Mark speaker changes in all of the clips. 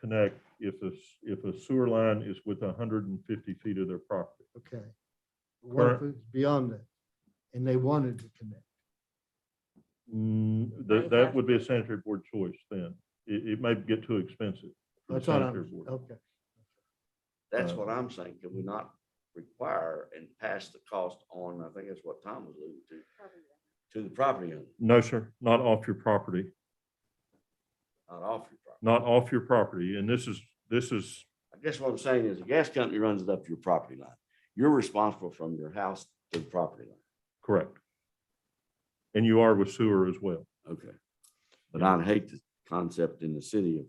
Speaker 1: connect if a, s- if a sewer line is with hundred and fifty feet of their property.
Speaker 2: Okay. What if
Speaker 1: Current-
Speaker 2: it's beyond that? And they wanted to connect.
Speaker 1: Mm, that,
Speaker 3: They have
Speaker 1: that would be a sanitary board choice then. It, it may get too expensive. for the
Speaker 2: That's what
Speaker 1: sanitary
Speaker 2: I'm,
Speaker 1: board.
Speaker 2: okay.
Speaker 4: That's
Speaker 1: Uh,
Speaker 4: what I'm saying. Can we not require and pass the cost on, I think that's what Tom was alluding to, to the property owner,
Speaker 1: No, sir, not off your property,
Speaker 4: not off your property.
Speaker 1: not off your property. And this is, this is,
Speaker 4: I guess what I'm saying is the gas company runs it up your property line. You're responsible from your house to the property line.
Speaker 1: correct. And you are with sewer as well.
Speaker 4: Okay. But I hate the concept in the city of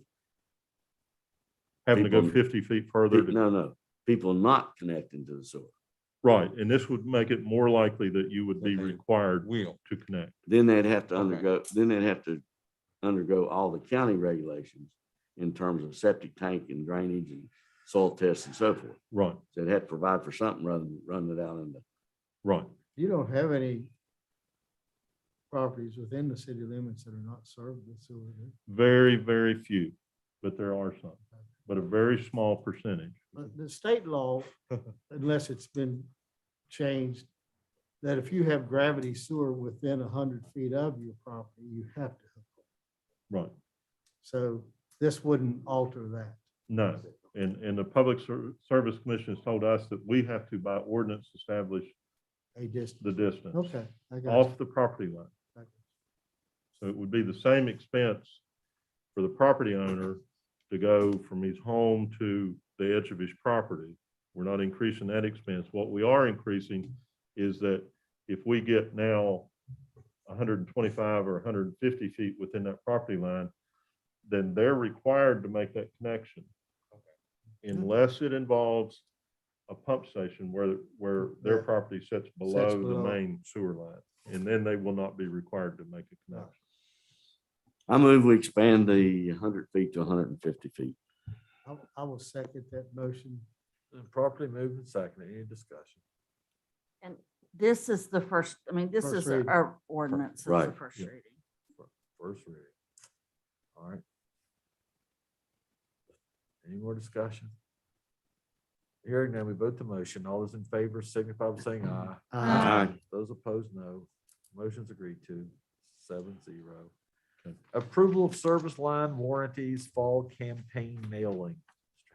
Speaker 1: Having to go
Speaker 4: People-
Speaker 1: fifty feet further to
Speaker 4: No, no, people not connecting to the sewer.
Speaker 1: Right, and this would make it more likely that you would be
Speaker 5: That they
Speaker 1: required
Speaker 5: Will.
Speaker 1: to connect.
Speaker 4: Then they'd have to
Speaker 5: Okay.
Speaker 4: undergo, then they'd have to undergo all the county regulations in terms of septic tank and drainage and soil tests and so forth.
Speaker 1: Right,
Speaker 4: So they'd have to provide for something rather than running it out in the,
Speaker 1: right.
Speaker 2: You don't have any properties within the city limits that are not served with sewer. do you?
Speaker 1: Very, very few, but there are some, but a very small percentage.
Speaker 2: But the state law, unless it's been changed, that if you have gravity sewer within a hundred feet of your property, you have to. hook up.
Speaker 1: Right,
Speaker 2: So this wouldn't alter that.
Speaker 1: no. And, and the Public Ser- Service Commission has told us that we have to by ordinance establish
Speaker 2: A distance.
Speaker 1: the distance
Speaker 2: Okay, I got
Speaker 1: off the property line.
Speaker 2: you.
Speaker 1: So it would be the same expense for the property owner to go from his home to the edge of his property. We're not increasing that expense. What we are increasing is that if we get now hundred and twenty-five or hundred and fifty feet within that property line, then they're required to make that connection. Unless it involves a pump station where, where their
Speaker 2: Yeah.
Speaker 1: property sits below
Speaker 2: Sits
Speaker 1: the
Speaker 2: below.
Speaker 1: main sewer line. And then they will not be required to make a connection.
Speaker 4: I move we expand the hundred feet to hundred and fifty feet.
Speaker 2: I, I will second that motion.
Speaker 6: And properly moved and seconded. Any discussion?
Speaker 3: And this is the first, I mean, this
Speaker 2: First
Speaker 3: is
Speaker 2: reading.
Speaker 3: our ordinance, it's the
Speaker 4: Right.
Speaker 3: first
Speaker 1: Yeah.
Speaker 3: reading.
Speaker 6: First reading. All right. Any more discussion? Hearing none, we vote the motion. All those in favor signify by saying aye.
Speaker 4: Aye.
Speaker 6: Those opposed, no. Motion's agreed to, seven zero. Approval of service line warranties, fall campaign mailing. Mr.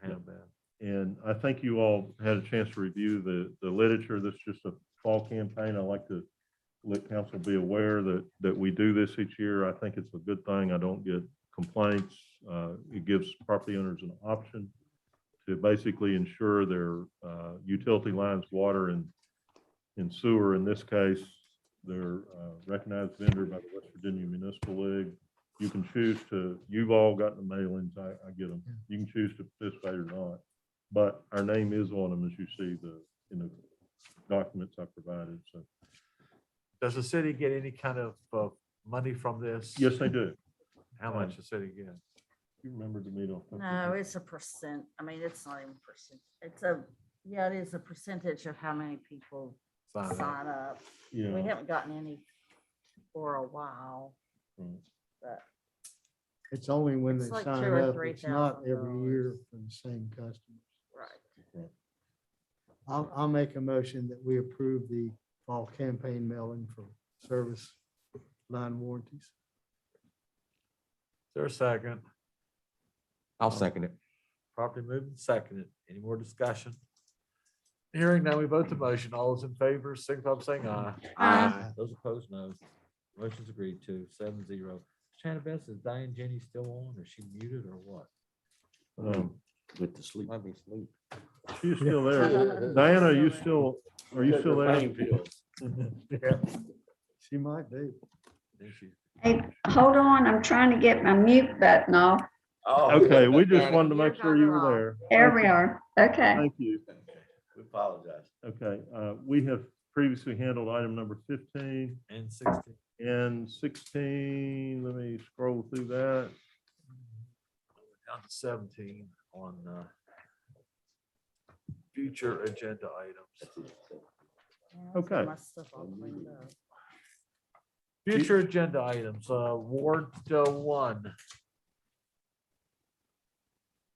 Speaker 1: Yeah.
Speaker 6: Hannibal.
Speaker 1: And I think you all had a chance to review the, the literature. This is just a fall campaign. I like to let council be aware that, that we do this each year. I think it's a good thing. I don't get complaints. Uh, It gives property owners an option to basically ensure their uh, utility lines, water and, and sewer. In this case, they're uh, recognized vendor by the West Virginia Municipal League. You can choose to, you've all gotten the mailings. I, I get them. You can choose to participate or not. But our name is on them, as you see the, in the documents I provided, so.
Speaker 6: Does the city get any kind of uh, money from this?
Speaker 1: Yes, they do.
Speaker 6: How much the city gets?
Speaker 1: You remember the meeting?
Speaker 3: No, it's a percent, I mean, it's not even percent, it's a, yeah, it is a percentage of how many people
Speaker 6: Sign up.
Speaker 3: sign up. We
Speaker 1: Yeah,
Speaker 3: haven't gotten any for a while.
Speaker 1: Mm.
Speaker 3: But
Speaker 2: It's only when they
Speaker 3: It's like
Speaker 2: sign
Speaker 3: two or
Speaker 2: up.
Speaker 3: three
Speaker 2: It's not
Speaker 3: thousand
Speaker 2: every year
Speaker 3: dollars.
Speaker 2: for the same customers.
Speaker 3: Right.
Speaker 2: I'll, I'll make a motion that we approve the fall campaign mailing for service line warranties.
Speaker 6: Is there a second?
Speaker 5: I'll second it.
Speaker 6: Properly moved and seconded. Any more discussion? Hearing now, we vote the motion. All those in favor, signify by saying aye.
Speaker 2: Aye.
Speaker 6: Those opposed, no. Motion's agreed to, seven zero. Shannon Best, is Diane Jenny still on? Is she muted or what?
Speaker 1: um,
Speaker 4: With the sleep.
Speaker 5: Might be asleep.
Speaker 1: She's still there. Diana, are you still, are you still there?
Speaker 2: She might be.
Speaker 6: I think she's-
Speaker 7: Hey, hold on, I'm trying to get my mute button off.
Speaker 4: Oh.
Speaker 1: Okay, we just wanted to make sure you were there.
Speaker 7: There we are. Okay.
Speaker 1: Thank you.
Speaker 4: We apologize.
Speaker 1: Okay, uh, we have previously handled item number fifteen
Speaker 6: And sixteen.
Speaker 1: and sixteen. Let me scroll through that.
Speaker 6: Down to seventeen on, uh, future agenda items.
Speaker 3: Yeah, I've got
Speaker 1: Okay.
Speaker 3: my stuff all cleaned up.
Speaker 6: Future agenda items, uh, Ward uh, one,